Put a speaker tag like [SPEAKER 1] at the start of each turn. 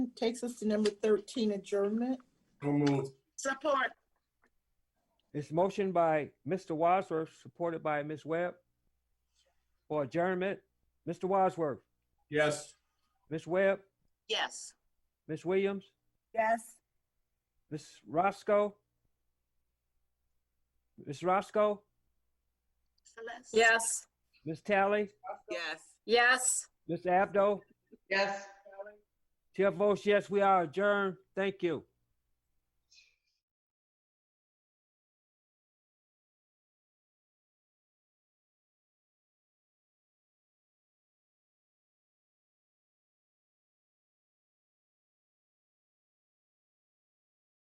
[SPEAKER 1] motion takes us to number 13, adjournment.
[SPEAKER 2] So moved.
[SPEAKER 3] Support.
[SPEAKER 4] It's motion by Mr. Wadsworth, supported by Ms. Webb. For adjournment, Mr. Wadsworth,
[SPEAKER 2] Yes.
[SPEAKER 4] Ms. Webb,
[SPEAKER 3] Yes.
[SPEAKER 4] Ms. Williams,
[SPEAKER 3] Yes.
[SPEAKER 4] Ms. Roscoe. Ms. Roscoe,
[SPEAKER 3] Yes.
[SPEAKER 4] Ms. Tally,
[SPEAKER 5] Yes.
[SPEAKER 3] Yes.
[SPEAKER 4] Ms. Abdo.
[SPEAKER 5] Yes.
[SPEAKER 4] Chair votes yes, we are adjourned. Thank you.